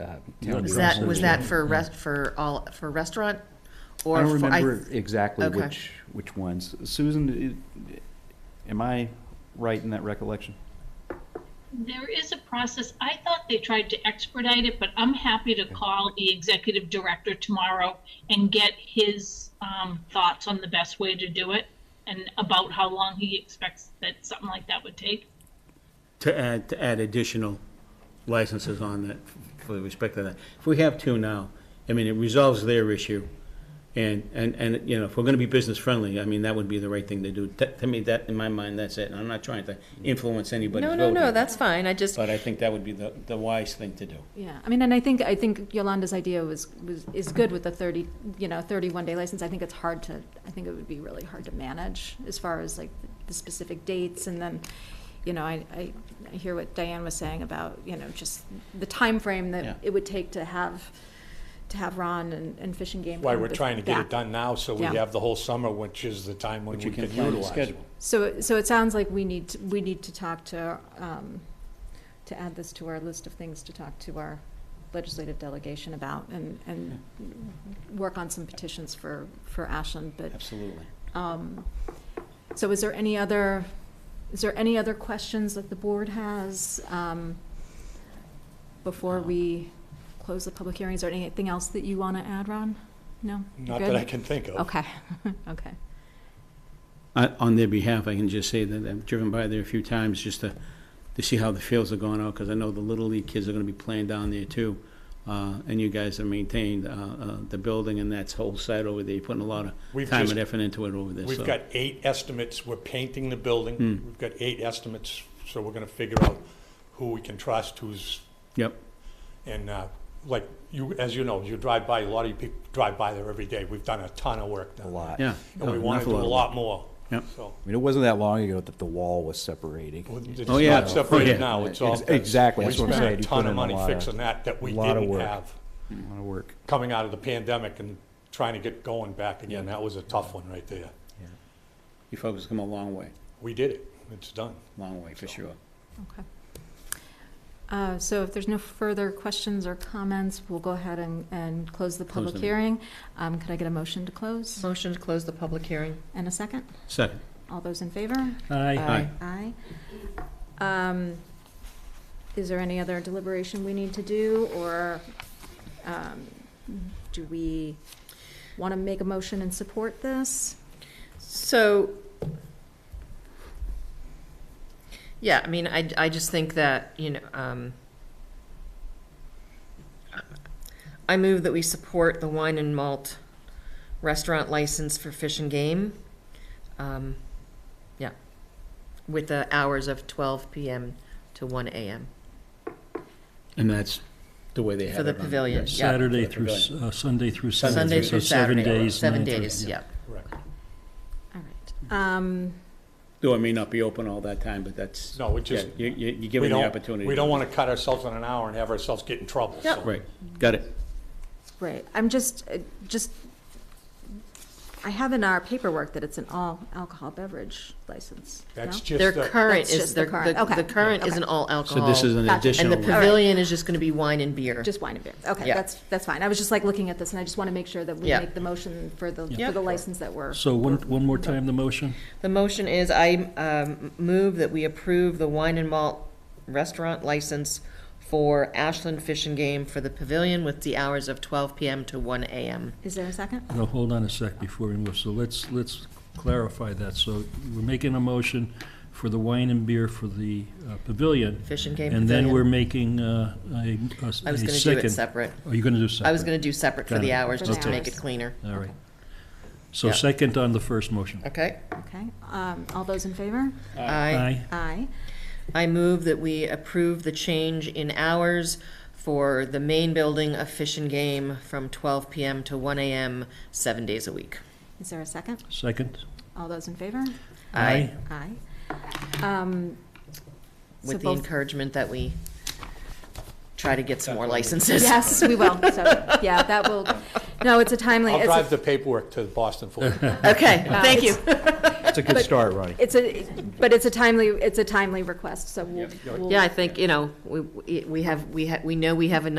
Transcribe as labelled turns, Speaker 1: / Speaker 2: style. Speaker 1: uh,
Speaker 2: Yeah,
Speaker 1: town
Speaker 2: it
Speaker 3: Was
Speaker 2: Drug
Speaker 3: that,
Speaker 1: council.
Speaker 3: was
Speaker 2: search.
Speaker 3: that for rest, for all, for restaurant?
Speaker 2: I
Speaker 3: or
Speaker 2: don't
Speaker 3: for-
Speaker 2: remember exactly
Speaker 3: okay.
Speaker 2: which, which ones. Susan, i- am I right in that recollection?
Speaker 4: There is a process. I thought they tried to expedite it, but I'm happy to call the executive director tomorrow and get his um, thoughts on the best way to do it and about how long he expects that something like that would take.
Speaker 5: to add, to add additional licenses on that, with respect to that. If we have two now, I mean, it resolves their issue, and, and, and, you know, if we're gonna be business friendly, I mean, that would be the right thing to do. To to me, that, in my mind, that's it, and I'm not trying to influence anybody's
Speaker 6: No,
Speaker 5: vote.
Speaker 6: no, no, that's fine, I just,
Speaker 5: But I think that would be the, the wise thing to do.
Speaker 6: yeah, I mean, and I think, I think Yolanda's idea was, was, is good with the thirty, you know, thirty-one day license, I think it's hard to, I think it would be really hard to manage as far as like the specific dates, and then, you know, I, I, I hear what Diane was saying about, you know, just the time frame
Speaker 5: Yeah.
Speaker 6: that it would take to have, to have Ron and, and Fish and Game.
Speaker 7: Why
Speaker 6: come
Speaker 7: we're
Speaker 6: with
Speaker 7: trying to get it
Speaker 6: that.
Speaker 7: done now, so we
Speaker 6: Yeah.
Speaker 7: have the whole summer, which is the time when
Speaker 2: Which
Speaker 7: we
Speaker 2: you
Speaker 7: can
Speaker 2: can plan to
Speaker 7: utilize. it.
Speaker 2: schedule.
Speaker 6: So, so it sounds like we need, to- we need to talk to, um, to add this to our list of things to talk to our legislative delegation about and, and work on some petitions for, for Ashland, but,
Speaker 5: Absolutely.
Speaker 6: um, so is there any other, is there any other questions that the board has, um, before we close the public hearing? Is there anything else that you want to add, Ron? No? You're
Speaker 7: Not
Speaker 6: good?
Speaker 7: that I can think of.
Speaker 6: Okay, okay.
Speaker 5: I- On their behalf, I can just say that I've driven by there a few times just to, to see how the fields are going out, because I know the Little League kids are gonna be playing down there too. Uh, and you guys have maintained, uh, uh, the building and that whole site over there, you're putting a lot
Speaker 7: We've
Speaker 5: of time
Speaker 7: just-
Speaker 5: and effort into it over there, so.
Speaker 7: We've got eight estimates, we're painting the building,
Speaker 1: Hmm.
Speaker 7: we've got eight estimates, so we're gonna figure out who we can trust, who's,
Speaker 5: Yep,
Speaker 7: and, uh, like, you, as you know, you drive by, a lot of you people drive by there every day, we've done a ton of work
Speaker 1: A
Speaker 7: now.
Speaker 1: lot.
Speaker 5: yeah.
Speaker 7: And we
Speaker 5: Oh,
Speaker 7: wanna
Speaker 5: enough of
Speaker 7: do a
Speaker 5: it.
Speaker 7: lot more.
Speaker 5: Yep.
Speaker 7: So,
Speaker 1: I mean, it wasn't that long ago that the wall was separating.
Speaker 7: it's
Speaker 5: Oh, yeah.
Speaker 7: not separated
Speaker 5: Yeah.
Speaker 7: now, it's all.
Speaker 1: Ex- exactly,
Speaker 7: We
Speaker 1: that's what I'm
Speaker 7: spent
Speaker 1: saying,
Speaker 7: a
Speaker 1: you put
Speaker 7: ton
Speaker 1: in a
Speaker 7: of money
Speaker 1: lot of-
Speaker 7: fixing that, that we
Speaker 1: lot of
Speaker 7: didn't
Speaker 1: work.
Speaker 7: have,
Speaker 2: A lot of work.
Speaker 7: coming out of the pandemic and trying to get going back again, that was a tough one right there.
Speaker 5: You folks have come a long way,
Speaker 7: We did it, it's done.
Speaker 5: long way, for sure.
Speaker 6: Okay. Uh, So if there's no further questions or comments, we'll go ahead and, and close the
Speaker 5: Close
Speaker 6: public
Speaker 5: the-
Speaker 6: hearing. Um, Could I get a motion to close
Speaker 3: Motion to close the public hearing.
Speaker 6: and a second?
Speaker 5: Second.
Speaker 6: All those in favor?
Speaker 5: Aye.
Speaker 6: Aye. Um, Is there any other deliberation we need to do, or um, do we want to make a motion and support this?
Speaker 3: So, yeah, I mean, I, I just think that, you know, um, I move that we support the wine and malt restaurant license for Fish and Game. Um, yeah, with the hours of twelve PM to one AM
Speaker 5: And that's the way they
Speaker 3: for
Speaker 5: have
Speaker 3: the
Speaker 5: it on.
Speaker 3: pavilion, yeah.
Speaker 2: Saturday
Speaker 5: Yeah,
Speaker 2: through, s- uh, Sunday through
Speaker 3: Sunday
Speaker 2: Saturday, so
Speaker 3: through
Speaker 2: seven
Speaker 3: Saturday,
Speaker 2: days.
Speaker 3: seven
Speaker 2: 9:30,
Speaker 3: days, yeah.
Speaker 7: Correct.
Speaker 6: All right. Um,
Speaker 5: Door may not be open all that time, but that's.
Speaker 7: No, it just-
Speaker 5: yeah, You, you, you give
Speaker 7: We
Speaker 5: them the
Speaker 7: don't-
Speaker 5: opportunity.
Speaker 7: We
Speaker 5: to-
Speaker 7: don't want to cut ourselves on an hour and have ourselves get in trouble.
Speaker 3: Yep.
Speaker 7: so.
Speaker 5: Right, got it.
Speaker 6: Right, I'm just, uh, just, I have in our paperwork that it's an all alcohol beverage license. no?
Speaker 7: That's
Speaker 3: Their
Speaker 7: just, a-
Speaker 3: current
Speaker 6: That's
Speaker 3: is,
Speaker 6: just the
Speaker 3: their-
Speaker 6: current,
Speaker 3: the,
Speaker 6: okay,
Speaker 3: the current is
Speaker 6: okay.
Speaker 3: an all
Speaker 5: So
Speaker 3: alcohol.
Speaker 5: this is an
Speaker 6: Gotcha. And the
Speaker 5: additional.
Speaker 3: And the pavilion is just gonna be wine and beer.
Speaker 6: Just wine and beer, okay,
Speaker 3: Yeah.
Speaker 6: that's, that's fine, I was just like looking at this, and I just want to make sure that we
Speaker 3: Yeah.
Speaker 6: make the motion for the,
Speaker 3: Yeah.
Speaker 6: for the license that we're.
Speaker 2: So one, one more time, the motion?
Speaker 3: The motion is I um, move that we approve the wine and malt restaurant license for Ashland Fish and Game for the pavilion with the hours of 12 PM to 1 AM.
Speaker 6: Is there a second?
Speaker 2: No, hold on a sec before we move, so let's, let's clarify that. So we're making a motion for the wine and beer for the uh, pavilion,
Speaker 3: Fish and Game
Speaker 2: and then we're
Speaker 3: Pavilion.
Speaker 2: making uh, a, a a
Speaker 3: I was gonna do it
Speaker 2: second.
Speaker 3: separate.
Speaker 2: Are you gonna do second?
Speaker 3: I was gonna do separate for
Speaker 2: Got
Speaker 3: the
Speaker 2: it.
Speaker 3: hours, just to
Speaker 6: Okay.
Speaker 3: make it cleaner.
Speaker 2: All right. So
Speaker 3: Yeah.
Speaker 2: second on the first motion.
Speaker 3: Okay?
Speaker 6: Okay, um, all those in favor?
Speaker 3: I,
Speaker 2: Aye.
Speaker 6: Aye.
Speaker 3: I move that we approve the change in hours for the main building of Fish and Game from 12 PM to 1 AM, seven days a week.
Speaker 6: Is there a second?
Speaker 2: Second?
Speaker 6: All those in favor?
Speaker 3: Aye.
Speaker 6: Aye. Um, so
Speaker 3: With the
Speaker 6: both-
Speaker 3: encouragement that we try to get some more licenses.
Speaker 6: Yes, we will, so, yeah, that will, no, it's a timely.
Speaker 7: I'll
Speaker 6: it's a-
Speaker 7: drive the paperwork to Boston for you.
Speaker 3: Okay,
Speaker 6: Wow.
Speaker 3: thank you.
Speaker 1: That's a good start, Ronnie.
Speaker 6: It's a, but it's a timely, it's a timely request, so we'll. we'll-
Speaker 3: Yeah, I think, you know, we, we have, we ha we know we have enough